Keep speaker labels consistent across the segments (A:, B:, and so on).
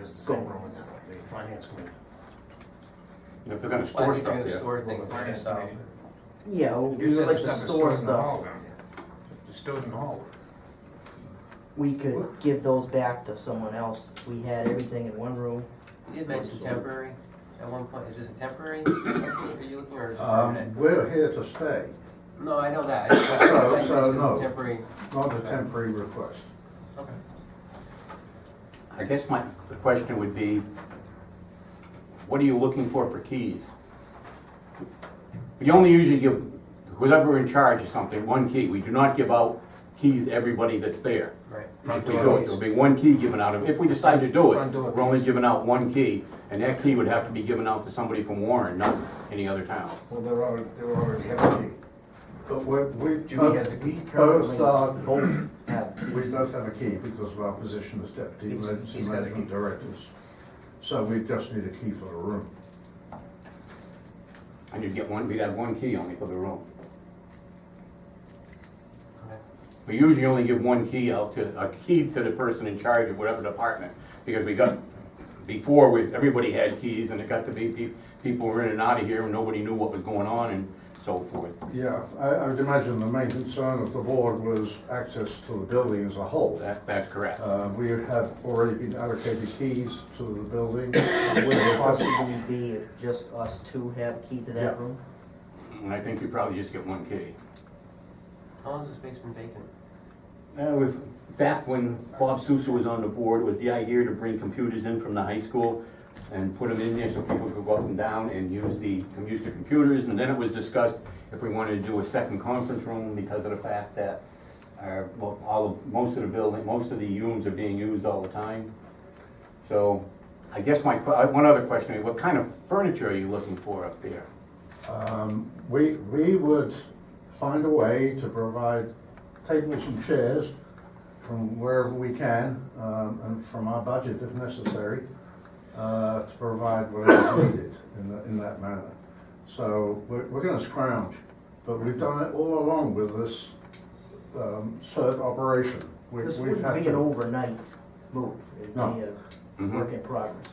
A: it's the same room as the finance committee.
B: If they're gonna
C: Well, I
B: store stuff,
C: think they're gonna
B: yeah.
C: store things there,
A: Finance
C: so.
A: committee.
D: Yeah, we
A: You
D: would
A: said
D: like
A: the
D: to
A: stuff is
D: store
A: stored in the
D: stuff.
A: hall down here. It's stored in the hall.
D: We could give those back to someone else. We had everything in one room.
C: You did mention temporary at one point. Is this a temporary? Are you looking for a
E: Um,
C: permanent?
E: we're here to stay,
C: No, I know that. I just- I
E: So-
C: just
E: Oh, so
C: mentioned
E: no.
C: Temporary,
E: not a temporary request.
C: okay.
B: I guess my, the question would be, what are you looking for for keys? We only usually give whoever in charge of something one key. We do not give out keys to everybody that's there.
C: Right.
B: If we do it, there'll be one key given out of, if we decide to do it, we're only giving out one key, and that key would have to be given out to somebody from Warren, not any other town.
A: Well, they're already, they're already having.
E: But we're, we. uh,
A: Jimmy has a key
E: Both
D: Currently,
E: are,
D: both have
E: we both have a key because of our position as deputy
C: He's-
E: emergency
C: he's got a
E: management
C: key.
E: directors. So we just need a key for the room.
B: And you'd get one, we'd have one key only for the room.
C: Okay.
B: We usually only give one key out to, a key to the person in charge of whatever department, because we got, before, we, everybody had keys, and it got to be, pe- people were in and out of here, and nobody knew what was going on and so forth.
E: Yeah, I, I would imagine the main concern of the board was access to the building as a whole.
B: That, that's correct.
E: Uh, we have already been allocated keys to the building. We're-
D: possibly be if just us two have key to
E: Yeah.
D: that room.
B: And I think you probably just get one key.
C: How long has this space been vacant?
B: Uh, with, back when Bob Sousa was on the board, it was the idea to bring computers in from the high school and put them in there so people could go up and down and use the, and use the computers, and then it was discussed if we wanted to do a second conference room because of the fact that our, well, all, of- most of the building, most of the rooms are being used all the time. So, I guess my, que- uh, one other question, is, what kind of furniture are you looking for up there?
E: Um, We, we would find a way to provide tables and chairs from wherever we can, um, and from our budget if necessary, uh, to provide whatever is needed in that, in that manner. So we're, we're gonna scrounge, but we've done it all along with this um, CERT operation. We-
D: This
E: We've had
D: wouldn't be an
E: to-
D: overnight move. It'd be
E: No.
D: a
B: Mhm.
D: work in progress.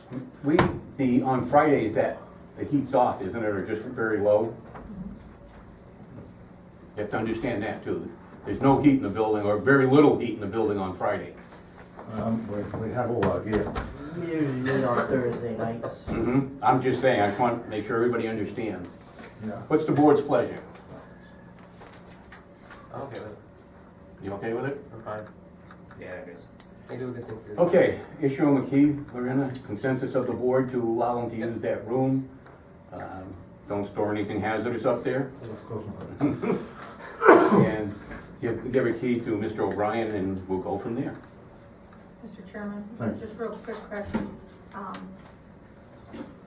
B: We, the, on Fridays, that, the heat's off, isn't it, or just very low? You have to understand that too. There's no heat in the building, or very little heat in the building on Friday.
E: um, We we have all our gear.
D: Usually meet on Thursday nights.
B: hmm I'm just saying, I just want to make sure everybody understands.
E: Yeah.
B: What's the board's pleasure?
C: I'm okay with it.
B: You okay with it?
C: I'm fine.
A: Yeah, it is.
C: They do a good thing for
E: Oh.
C: you.
B: Okay, issuing the key, we're in a consensus of the board to allow them to use that room. Um, Don't store anything hazardous up there.
E: Of course not.
B: And give, give a key to Mr. O'Brien and we'll go from there.
F: Mr. Chairman,
E: Thank you.
F: just real quick question. Um,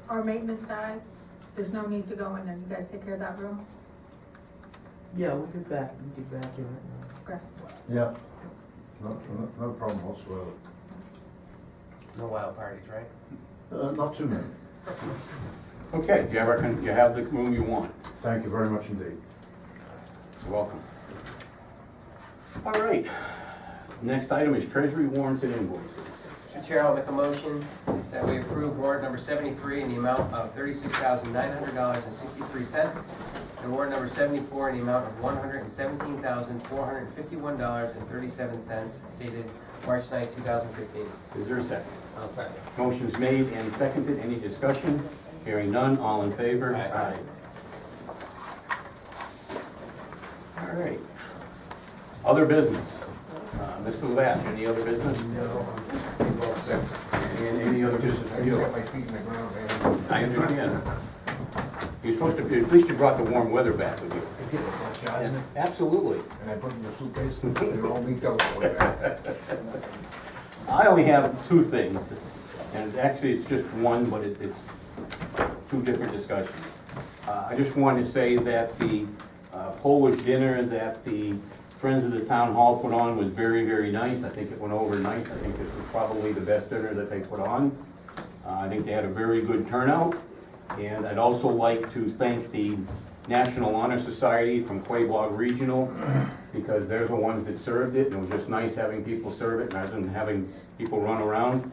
F: Our maintenance guy, there's no need to go in there, you guys take care of that room?
D: Yeah, we could back, we could back in right now.
F: Okay.
E: Yeah. No, no no problem whatsoever.
C: No wild parties, right?
E: Uh, Not too many.
B: Okay, you have, our con- you have the room you want.
E: Thank you very much indeed.
B: You're welcome. All right. Next item is treasury warrants and invoices.
C: Mr. Chair, I'll make a motion that we approve warrant number seventy-three in the amount of thirty-six thousand nine hundred dollars and sixty-three cents, and warrant number seventy-four in the amount of one hundred and seventeen thousand four hundred and fifty-one dollars and thirty-seven cents dated March 9, two thousand fifteen.
B: Is there a second?
C: I'll second.
B: Motion's made and seconded. Any discussion? Hearing none, all in favor?
C: Aye.
B: All right. Other business. Uh, Mr. Lab, any other business?
A: No, I'm all set.
B: And any other business
A: I
B: for
A: just
B: you?
A: got my feet in the ground, man.
B: I understand. You're supposed to, at least you brought the warm weather back with you.
A: I did it, bunch, Johnson,
B: Absolutely.
A: and I put them in the suitcase, and they're all linked up over there.
B: I only have two things, and actually, it's just one, but it- it's two different discussions. Uh, I just wanted to say that the uh, Polish dinner that the Friends of the Town Hall put on was very, very nice. I think it went over nice. I think this was probably the best dinner that they put on. Uh, I think they had a very good turnout. And I'd also like to thank the National Honor Society from Quabog Regional, because they're the ones that served it, and it was just nice having people serve it, rather than having people run around.